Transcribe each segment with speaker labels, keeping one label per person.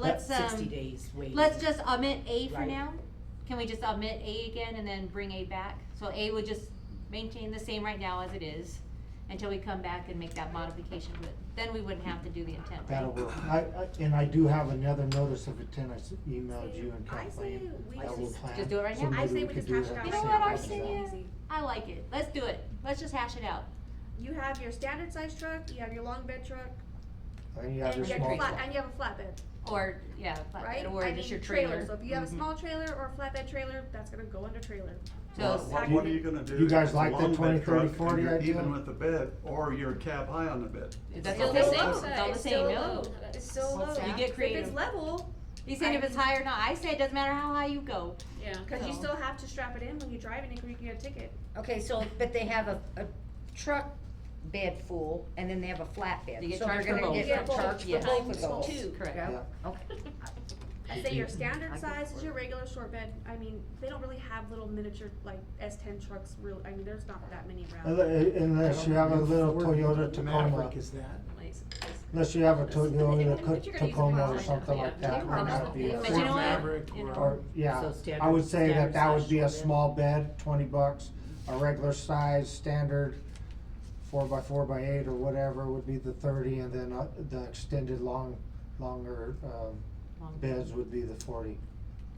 Speaker 1: let's,
Speaker 2: Sixty
Speaker 1: um,
Speaker 2: days waiting.
Speaker 1: let's just omit A for
Speaker 2: Right.
Speaker 1: now. Can we just omit A again and then bring A back? So A would just maintain the same right now as it is until we come back and make that modification, but then we wouldn't have to do the intent, right?
Speaker 3: That'll work. I, I, and I do have another notice of intent I s- emailed you and
Speaker 4: I say
Speaker 3: Kathleen.
Speaker 4: we
Speaker 3: that we'll
Speaker 4: just-
Speaker 3: plan.
Speaker 1: Just do it right
Speaker 3: So
Speaker 1: now?
Speaker 3: maybe
Speaker 4: I say we
Speaker 3: could
Speaker 4: just
Speaker 3: do
Speaker 4: hash
Speaker 3: that
Speaker 4: it out.
Speaker 1: You know
Speaker 3: same
Speaker 1: what,
Speaker 3: day.
Speaker 1: Arsenio? I like it. Let's do it. Let's just hash it out.
Speaker 4: You have your standard size truck, you have your long bed truck,
Speaker 3: And you have your
Speaker 4: and you have your
Speaker 3: small
Speaker 4: flat,
Speaker 3: truck.
Speaker 4: and you have a flatbed,
Speaker 1: Or, yeah,
Speaker 4: right?
Speaker 1: flatbed, or
Speaker 4: I
Speaker 1: just
Speaker 4: mean,
Speaker 1: your trailer.
Speaker 4: So if you have a
Speaker 3: Mm-hmm.
Speaker 1: Mhm.
Speaker 4: small trailer or a flatbed trailer, that's gonna go under trailer.
Speaker 1: So
Speaker 5: Well, What, what are you gonna do?
Speaker 3: You
Speaker 5: if
Speaker 3: guys
Speaker 5: it's a
Speaker 3: like that
Speaker 5: long bed
Speaker 3: 20, 30,
Speaker 5: truck and
Speaker 3: 40
Speaker 5: you're
Speaker 3: idea?
Speaker 5: Even with the bed, or you're cab high on the bed.
Speaker 1: That's
Speaker 5: It's
Speaker 1: what they're
Speaker 5: all
Speaker 1: saying,
Speaker 5: low.
Speaker 1: it's all the
Speaker 6: It's
Speaker 1: same,
Speaker 6: still
Speaker 1: no.
Speaker 6: low.
Speaker 4: It's so low.
Speaker 2: What's that?
Speaker 1: You get
Speaker 4: If
Speaker 1: creative.
Speaker 4: it's level,
Speaker 1: He's saying if it's high or not, I say it doesn't matter how high you go.
Speaker 6: Yeah.
Speaker 4: cause you
Speaker 1: So-
Speaker 4: still have to strap it in when you drive it, or you can get a ticket.
Speaker 7: Okay, so, but they have a, a truck bed full, and then they have a flatbed.
Speaker 1: They get
Speaker 7: so they're
Speaker 1: charged for
Speaker 7: gonna
Speaker 1: both.
Speaker 7: get
Speaker 4: Yeah.
Speaker 7: charged for
Speaker 1: Yeah.
Speaker 7: both of
Speaker 6: Times
Speaker 7: those.
Speaker 6: two.
Speaker 1: Correct.
Speaker 7: Yeah, okay.
Speaker 4: I say your
Speaker 7: I
Speaker 4: standard
Speaker 7: can
Speaker 4: size
Speaker 7: afford
Speaker 4: is your regular short bed, I mean, they don't really have little miniature like S ten trucks real, I mean, there's not that many around.
Speaker 3: Unle- Unless you have a little Toyota Tacoma,
Speaker 8: Maverick is that?
Speaker 3: unless you have a Toyota
Speaker 6: But
Speaker 3: Co-
Speaker 6: you're gonna use
Speaker 3: Tacoma
Speaker 6: it
Speaker 3: or
Speaker 6: for
Speaker 3: something
Speaker 6: something,
Speaker 3: like
Speaker 6: yeah.
Speaker 3: that,
Speaker 6: Yeah.
Speaker 3: then that'd be a
Speaker 1: But you know
Speaker 3: flat
Speaker 1: what?
Speaker 8: Maverick
Speaker 1: You
Speaker 8: or-
Speaker 3: bed.
Speaker 1: know-
Speaker 3: Or, yeah,
Speaker 2: So standard-
Speaker 3: I would say that
Speaker 2: standard
Speaker 3: that would
Speaker 2: size
Speaker 3: be a
Speaker 2: short bed.
Speaker 3: small bed, twenty bucks, a regular size, standard four by four by eight or whatever would be the thirty, and then uh, the extended long, longer, um,
Speaker 1: Long.
Speaker 3: beds would be the forty.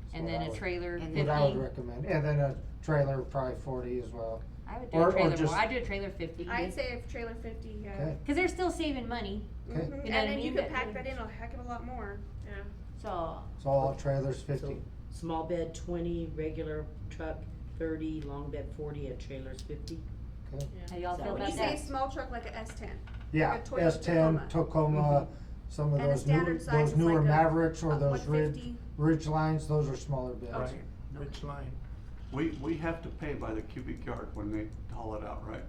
Speaker 3: That's
Speaker 1: And
Speaker 3: what
Speaker 1: then
Speaker 3: I
Speaker 1: a
Speaker 3: would-
Speaker 1: trailer
Speaker 7: And
Speaker 3: What I would
Speaker 1: fifty.
Speaker 3: recommend, and then a trailer probably forty as well,
Speaker 1: I would do
Speaker 3: Or-
Speaker 1: a
Speaker 3: or
Speaker 1: trailer
Speaker 3: just-
Speaker 1: more, I'd do a trailer fifty.
Speaker 4: I'd say if trailer fifty, yeah.
Speaker 3: okay?
Speaker 1: Cause they're still saving money,
Speaker 3: Okay.
Speaker 4: Mhm.
Speaker 1: what
Speaker 4: And
Speaker 1: I
Speaker 4: then you
Speaker 1: mean?
Speaker 4: could
Speaker 1: That-
Speaker 4: pack that in a heck of a lot more.
Speaker 1: so,
Speaker 3: So all trailers
Speaker 2: So,
Speaker 3: fifty,
Speaker 2: Small bed twenty, regular truck thirty, long bed forty, and trailers fifty.
Speaker 1: how y'all
Speaker 2: So
Speaker 1: feel
Speaker 2: when
Speaker 4: When you
Speaker 1: about
Speaker 4: say
Speaker 1: that?
Speaker 4: a small truck like a S ten,
Speaker 3: yeah,
Speaker 4: Like a Toyota
Speaker 3: S ten, Tacoma, some of
Speaker 4: And a
Speaker 3: those new,
Speaker 4: standard size
Speaker 3: those
Speaker 4: is
Speaker 3: newer
Speaker 4: like a-
Speaker 3: Mavericks or
Speaker 4: a one
Speaker 3: those ridge,
Speaker 4: fifty,
Speaker 3: ridge lines, those are smaller beds.
Speaker 8: Right, Ridge Line.
Speaker 5: We, we have to pay by the cubic yard when they haul it out, right?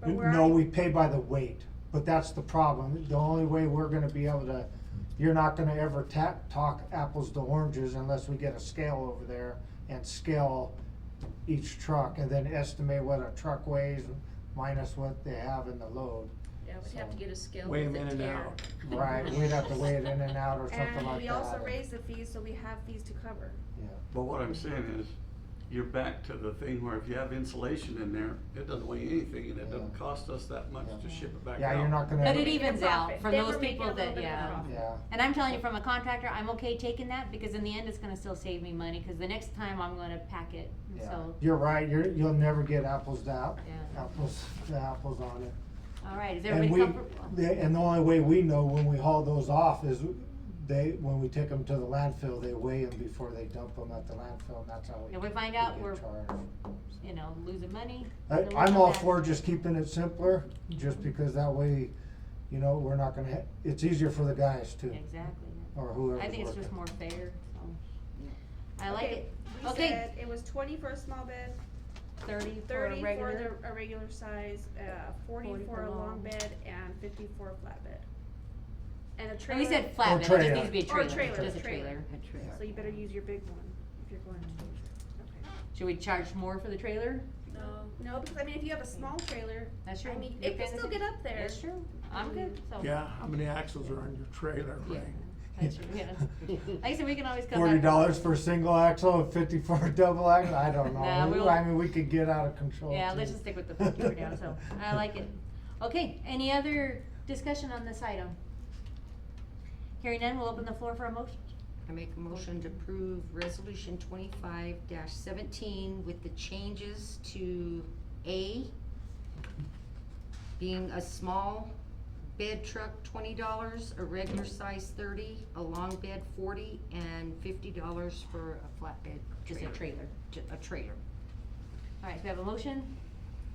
Speaker 4: but where
Speaker 3: No,
Speaker 4: are you?
Speaker 3: we pay by the weight, but that's the problem. The only way we're gonna be able to, you're not gonna ever ta- talk apples to oranges unless we get a scale over there and scale each truck and then estimate what a truck weighs minus what they have in the load.
Speaker 6: Yeah, we'd have to get a scale
Speaker 8: Weigh
Speaker 6: with
Speaker 8: 'em
Speaker 6: the
Speaker 8: in and
Speaker 6: tear.
Speaker 8: out.
Speaker 3: Right, we'd have to weigh it in and out or something
Speaker 4: And
Speaker 3: like that.
Speaker 4: we also raise the fees, so we have fees to cover.
Speaker 5: But what I'm saying is, you're back to the thing where if you have insulation in there, it doesn't weigh anything and it doesn't
Speaker 3: Yeah.
Speaker 5: cost us that much to ship it back out.
Speaker 3: Yeah, you're not gonna.
Speaker 1: But it
Speaker 4: Making a
Speaker 1: evens out
Speaker 4: profit.
Speaker 1: from
Speaker 4: They
Speaker 1: those
Speaker 4: were making
Speaker 1: people
Speaker 4: a little
Speaker 1: that-
Speaker 4: bit of a
Speaker 1: yeah.
Speaker 4: profit.
Speaker 3: Yeah,
Speaker 1: And I'm telling you, from a contractor, I'm okay taking that, because in the end, it's gonna still save me money, cause the next time I'm gonna pack it, And
Speaker 3: yeah.
Speaker 1: so,
Speaker 3: You're right, you're, you'll never get apples to app-
Speaker 1: yeah.
Speaker 3: apples, to apples on it.
Speaker 1: Alright, is
Speaker 3: And
Speaker 1: everybody
Speaker 3: we,
Speaker 1: comfortable?
Speaker 3: the- and the only way we know when we haul those off is they, when we take them to the landfill, they weigh them before they dump them at the landfill, and that's how we.
Speaker 1: If we find
Speaker 3: we
Speaker 1: out
Speaker 3: get
Speaker 1: we're,
Speaker 3: charged.
Speaker 1: you know, losing money. then we'll
Speaker 3: I, I'm
Speaker 1: come
Speaker 3: all
Speaker 1: back.
Speaker 3: for just keeping it simpler, just because that way, you know, we're not gonna, ha- it's easier for the guys too,
Speaker 1: Exactly, yeah.
Speaker 3: or whoever's
Speaker 1: I
Speaker 3: working.
Speaker 1: think it's just more fair, so. I like
Speaker 4: Okay,
Speaker 1: it,
Speaker 4: We
Speaker 1: Okay.
Speaker 4: said it was twenty for a small bed,
Speaker 1: thirty for a
Speaker 4: thirty
Speaker 1: regular,
Speaker 4: for the, a regular size, uh, forty
Speaker 1: 40
Speaker 4: for a long bed, and fifty for a flatbed. And a
Speaker 1: and
Speaker 4: trailer.
Speaker 1: we said flatbed, it just
Speaker 3: trailer.
Speaker 1: needs to be a
Speaker 4: Or
Speaker 1: trailer,
Speaker 4: a trailer,
Speaker 1: just a
Speaker 4: trailer.
Speaker 1: trailer.
Speaker 4: So you better use your big one if you're going
Speaker 1: Mm-hmm.
Speaker 4: to.
Speaker 1: Should we charge more for the trailer?
Speaker 6: No.
Speaker 4: Okay. No, because I mean, if you have a small trailer,
Speaker 1: That's true.
Speaker 4: I mean,
Speaker 1: Your
Speaker 4: it can
Speaker 1: fantasy-
Speaker 4: still get up there.
Speaker 1: That's true, I'm good, so.
Speaker 8: Yeah, how many axles are on your trailer,
Speaker 1: Oh. Yeah,
Speaker 8: right?
Speaker 1: that's true, yeah. Like I said, we can always come back.
Speaker 3: Forty dollars for a single axle and fifty for a double axle, I don't
Speaker 1: Nah,
Speaker 3: know, We-
Speaker 1: we'll-
Speaker 3: I mean, we could get out of control
Speaker 1: Yeah,
Speaker 3: too.
Speaker 1: let's just stick with the fifty for now, so, I like it. Okay, any other discussion on this item? Hearing none, we'll open the floor for a motion.
Speaker 7: I make a motion to approve resolution twenty-five seventeen with the changes to A, being a small bed truck twenty dollars, a regular size thirty, a long bed forty, and fifty dollars for a flatbed
Speaker 1: Just a
Speaker 7: trailer.
Speaker 1: trailer.
Speaker 7: Ju- A trailer.
Speaker 1: All right, we have a motion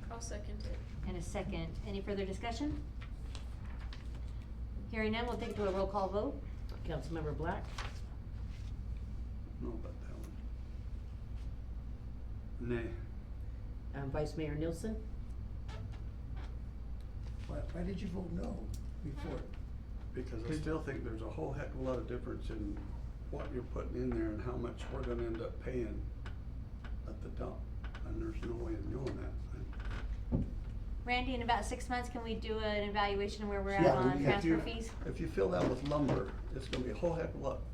Speaker 6: I'll second it.
Speaker 1: and a second. Any further discussion? Hearing none, we'll take it to a roll call vote.
Speaker 2: Councilmember Black,
Speaker 5: Know about that one. Nay.
Speaker 2: um, Vice Mayor Nielsen,
Speaker 8: Why, why did you vote no before?
Speaker 5: Because I still think there's a whole heck of a lot of difference in what you're putting in there and how much we're gonna end up paying at the dump. And there's no way of knowing that.
Speaker 1: Randy, in about six months, can we do an evaluation where we're at
Speaker 3: Yeah, we
Speaker 1: on Uh,
Speaker 3: can.
Speaker 1: transfer
Speaker 5: If you-
Speaker 1: fees?
Speaker 5: If you fill that with lumber, it's gonna be a whole heck of a lot